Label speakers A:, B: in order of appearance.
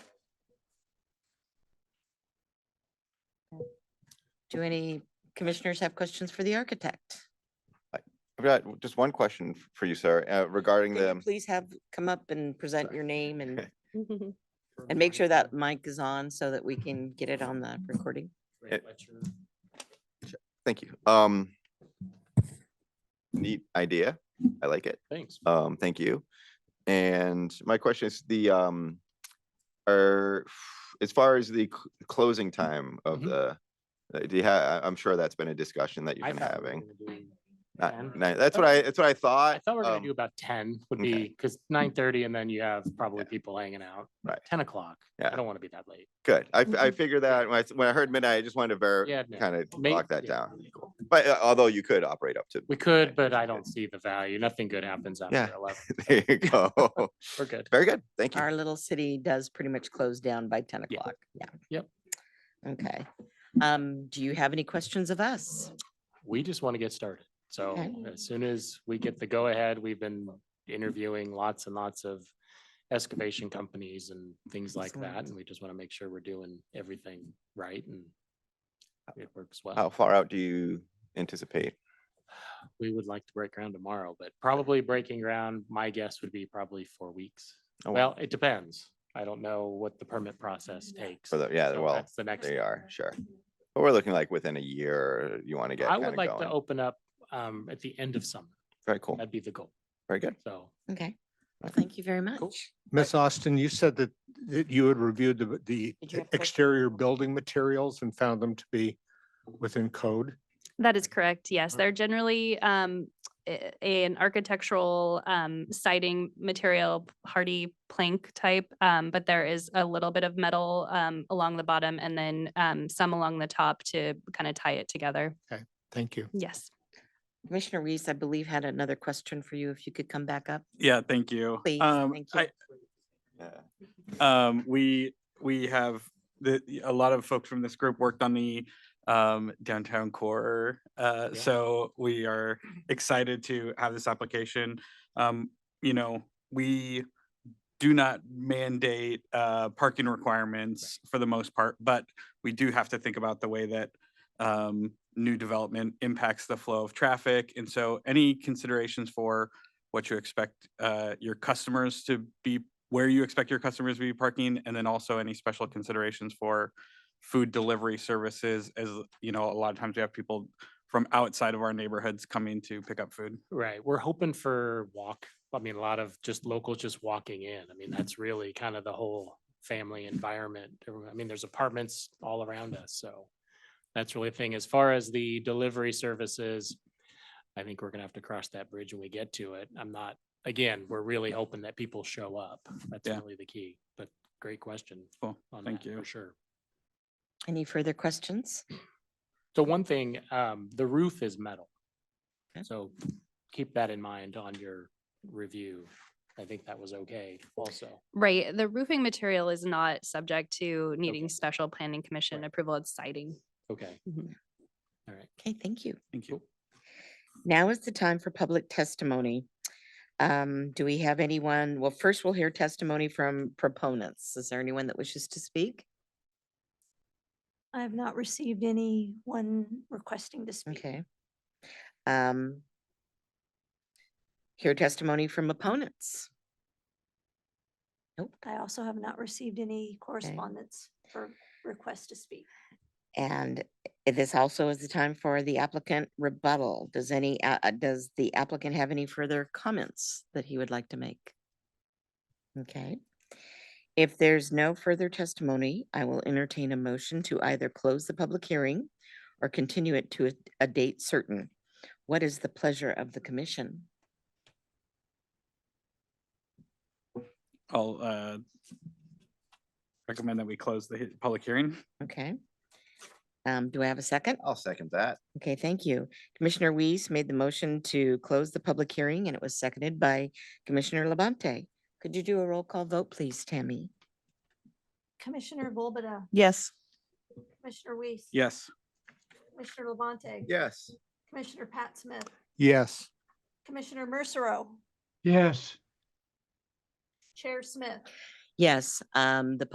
A: Do any commissioners have questions for the architect?
B: I've got just one question f- for you, sir, uh, regarding
A: Can you
B: the,
A: Please have, come up and present your name and,
C: Mm-hmm.
D: Or
A: and make
D: mic
A: sure that
D: or
A: mic is on so that we can get it on the recording.
D: Ray
B: it-
D: Fletcher.
B: thank you. Um, neat idea. I like it.
D: Thanks.
B: Um, thank you. And my question is the, um, are, as far as the c- closing time of
D: Mhm.
B: the, uh, do you have, I'm sure that's been a discussion that you've
D: I
B: been
D: thought we were
B: having.
D: gonna do-
B: Not-
D: 10.
B: not- That's what I, that's what I thought.
D: I thought we were
B: um,
D: gonna do about ten would
B: okay.
D: be, because nine thirty and then you have probably people hanging out.
B: Right.
D: Ten o'clock.
B: Yeah.
D: I don't want to be that late.
B: Good. I, f- I figured that when I, s- when I heard midnight, I just wanted to
D: Mm-hmm. Yeah,
B: ver,
D: no.
B: kind of
D: May-
B: lock that
D: yeah.
B: down. But uh, although you could operate up to,
D: We could,
B: Okay.
D: but I don't see the value. Nothing good happens
B: Yeah.
D: after eleven.
B: there you go.
D: We're good.
B: Very good. Thank you.
A: Our little city does pretty much close down by ten
D: Yeah.
A: o'clock. Yeah.
D: Yep.
A: Okay. Um, do you have any questions of us?
D: We just want to get started. So
A: Okay.
D: as soon as we get the go-ahead, we've been interviewing lots and lots of excavation companies and things like that.
A: Excellent.
D: And we just want to make sure we're doing everything right and it works well.
B: How far out do you anticipate? Oh.
D: We would like to break ground tomorrow, but probably breaking ground, my guess would be probably four weeks.
B: Oh,
D: Well, it depends. I don't know what the permit process takes.
B: For the, yeah,
D: so
B: well,
D: That's the next.
B: they are, sure. But we're looking like within a year, you want to get
D: I
B: kind
D: would
B: of
D: like to
B: going.
D: open up um at the end of summer.
B: Very cool.
D: That'd be the goal.
B: Very good.
D: So
A: Okay. Well, thank you very
D: Cool.
A: much.
E: Miss Austin, you said that, that you had reviewed the, the
A: Did you have questions?
E: exterior building materials and found them to be within code.
C: That is correct. Yes, they're generally um, a- an architectural um, siding material, hardy plank type, um, but there is a little bit of metal um, along the bottom and then um, some along the top to kind of tie it together.
E: Thank you.
C: Yes.
A: Commissioner Reese, I believe, had another question for you. If you could come back up.
F: Yeah, thank you.
A: Please,
F: Um,
A: thank you.
B: Yeah.
F: I, um, we, we have, the, a lot of folks from this group worked on the, um, downtown core. Uh,
D: Yeah.
F: so we are excited to have this application. Um, you know, we do not mandate, uh, parking requirements for the most part, but we do have to think about the way that, um, new development impacts the flow of traffic. And so any considerations for what you expect, uh, your customers to be where you expect your customers to be parking, and then also any special considerations for food delivery services, as, you know, a lot of times we have people from outside of our neighborhoods coming to pick up food.
D: Right. We're hoping for walk. I mean, a lot of just locals just walking in. I mean, that's really kind of the whole family environment. Everyone- I mean, there's apartments all around us, so that's really a thing. As far as the delivery services, I think we're gonna have to cross that bridge when we get to it. I'm not, again, we're really hoping that people show up. That's
F: Yeah.
D: really the key, but great question
F: Cool,
D: on
F: thank
D: that,
F: you.
D: for sure.
A: Any further questions?
D: So one thing, um, the roof is metal.
A: Okay.
D: So keep that in mind on your review. I think that was okay also.
C: Right. The roofing material is not subject to
D: Okay.
C: needing special planning commission
D: Right.
C: approval. It's siding.
D: Okay.
C: Mhm.
D: All right.
A: Okay, thank you.
F: Thank you.
A: Now is the time for public testimony. Um, do we have anyone? Well, first we'll hear testimony from proponents. Is there anyone that wishes to speak?
G: I have not received anyone requesting to speak.
A: Okay. Um, hear testimony from opponents.
G: I also have not received any correspondence for request to speak.
A: And i- this also is the time for the applicant rebuttal. Does any, uh, uh, does the applicant have any further comments that he would like to make? Okay. If there's no further testimony, I will entertain a motion to either close the public hearing or continue it to a, a date certain. What is the pleasure of the commission?
F: I'll, uh, recommend that we close the he- public hearing.
A: Okay. Um, do I have a second?
B: I'll second that.
A: Okay, thank you. Commissioner Weiss made the motion to close the public hearing and it was seconded by Commissioner Labonte. Could you do a roll call vote, please, Tammy?
G: Commissioner Volbada,
H: Yes.
G: Commissioner Weiss.
F: Yes.
G: Commissioner Levante.
B: Yes.
G: Commissioner Pat Smith,
E: Yes.
G: Commissioner Mercero,
E: Yes.
G: Chair Smith.
A: Yes, um, the